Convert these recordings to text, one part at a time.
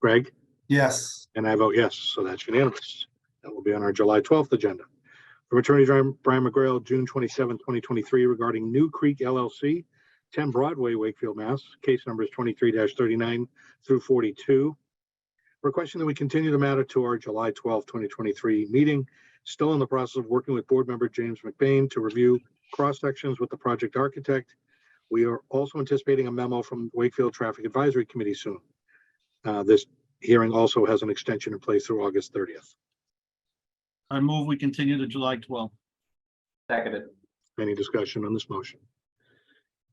Greg? Yes. And I vote yes, so that's unanimous. That will be on our July 12th agenda. From Attorney Brian Brian McGrail, June 27, 2023, regarding New Creek LLC, 10 Broadway, Wakefield, Mass. Case numbers 23-39 through 42. Requesting that we continue the matter to our July 12, 2023 meeting. Still in the process of working with Board Member James McBain to review cross-sections with the project architect. We are also anticipating a memo from Wakefield Traffic Advisory Committee soon. Uh, This hearing also has an extension in place through August thirtieth. I move we continue to July twelfth. Seconded. Any discussion on this motion?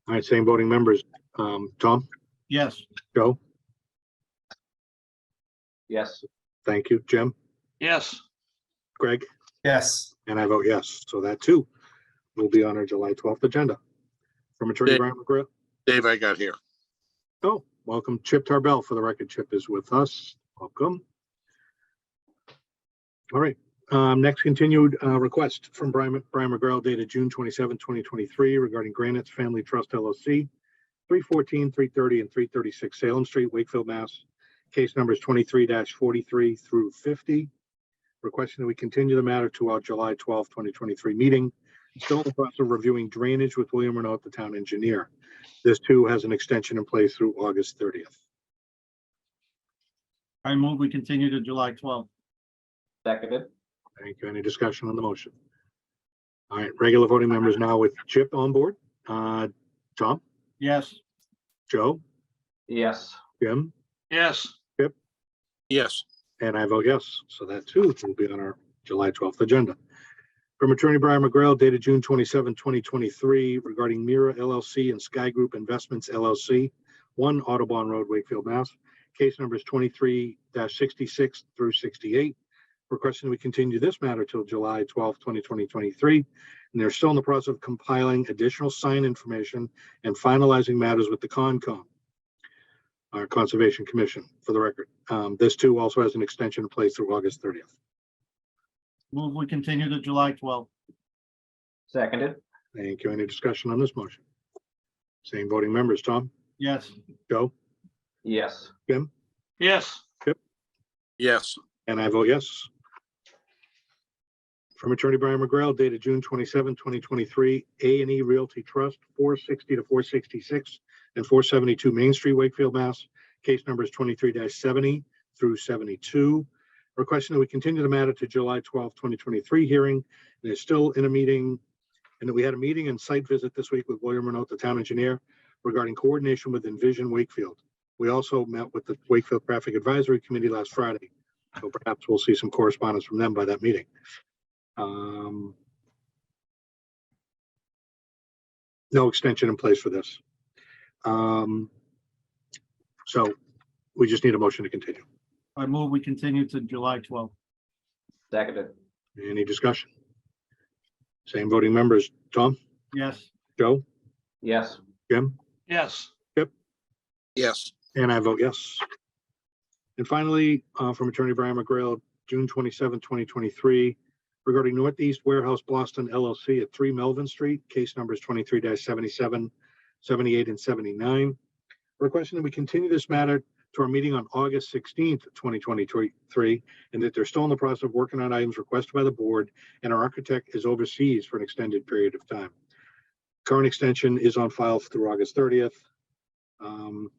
All right, same voting members. Um, Tom, Yes, Joe, Yes. thank you. Jim? Yes. Greg? Yes. And I vote yes. So that too will be on our July twelfth agenda. From Attorney Dave. Brian McGrail. Dave, I got here. Oh, welcome Chip Tarbell. For the record, Chip is with us. Welcome. All right, um, next continued, uh, request from Brian, Brian McGrail dated June 27, 2023, regarding Granite's Family Trust LLC, 314, 330, and three thirty-six Salem Street, Wakefield, Mass. Case numbers twenty-three forty-three through fifty. Requesting that we continue the matter to our July twelfth, twenty twenty-three meeting. Still in the process of reviewing drainage with William Renault, the town engineer. This too has an extension in place through August thirtieth. I move we continue to July twelfth. Seconded. Thank you. Any discussion on the motion? All right, regular voting members now with Chip on board. Uh, Tom, Yes, Joe, Yes. Jim, Yes. Yes, and I vote yes. So that too will be on our July twelfth agenda. From Attorney Brian McGrail dated June 27, 2023, regarding Mira LLC and Sky Group Investments LLC, one Audubon Road, Wakefield, Mass. Case numbers twenty-three sixty-six through sixty-eight. requesting we continue this matter till July twelfth, twenty twenty, twenty-three. And they're still in the process of compiling additional sign information and finalizing matters with the Concom. Our Conservation Commission, for the record. Um, this too also has an extension in place through August thirtieth. move we continue to July twelfth. Seconded. Thank you. Any discussion on this motion? Same voting members, Tom, Yes, Joe, Yes. Jim, Yes. yes, and I vote yes. From Attorney Brian McGrail dated June 27, 2023, A and E Realty Trust, 460 to 466 and 472 Main Street, Wakefield, Mass. Case numbers 23-70 through 72. Requesting that we continue the matter to July 12, 2023 hearing. And it's still in a meeting. And we had a meeting and site visit this week with William Renault, the town engineer, regarding coordination with Envision Wakefield. We also met with the Wakefield Traffic Advisory Committee last Friday. So perhaps we'll see some correspondence from them by that meeting. Um, No extension in place for this. Um, So we just need a motion to continue. I move we continue to July twelfth. Seconded. Any discussion? Same voting members, Tom, Yes, Joe, Yes. Jim? Yes. yes, And I vote yes. And finally, uh, from Attorney Brian McGrail, June 27, 2023, regarding Northeast Warehouse Boston LLC at 3 Melvin Street, case numbers 23-77, 78, and 79. Requesting that we continue this matter to our meeting on August 16th, 2023, and that they're still in the process of working on items requested by the board, and our architect is overseas for an extended period of time. Current extension is on file through August 30th. Um,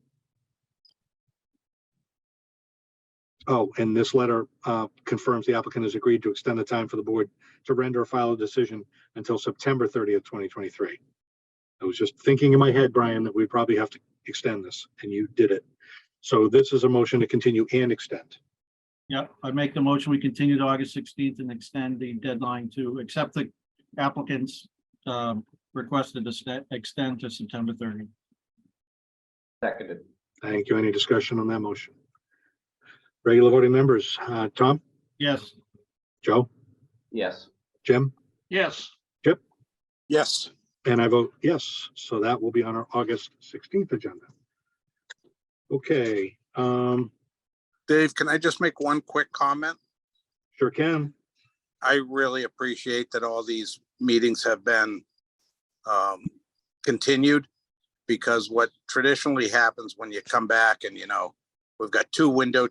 Oh, and this letter uh, confirms the applicant has agreed to extend the time for the board to render a final decision until September thirtieth, twenty twenty-three. I was just thinking in my head, Brian, that we probably have to extend this, and you did it. So this is a motion to continue and extend. yeah, I make the motion. We continue to August sixteenth and extend the deadline to accept the applicant's um, requested to sta- extend to September thirty. Seconded. Thank you. Any discussion on that motion? Regular voting members, uh, Tom, Yes, Joe, Yes. Jim, yes, yes. and I vote yes. So that will be on our August sixteenth agenda. Okay, um, Dave, can I just make one quick comment? sure can. I really appreciate that all these meetings have been um, continued because what traditionally happens when you come back and, you know, we've got two window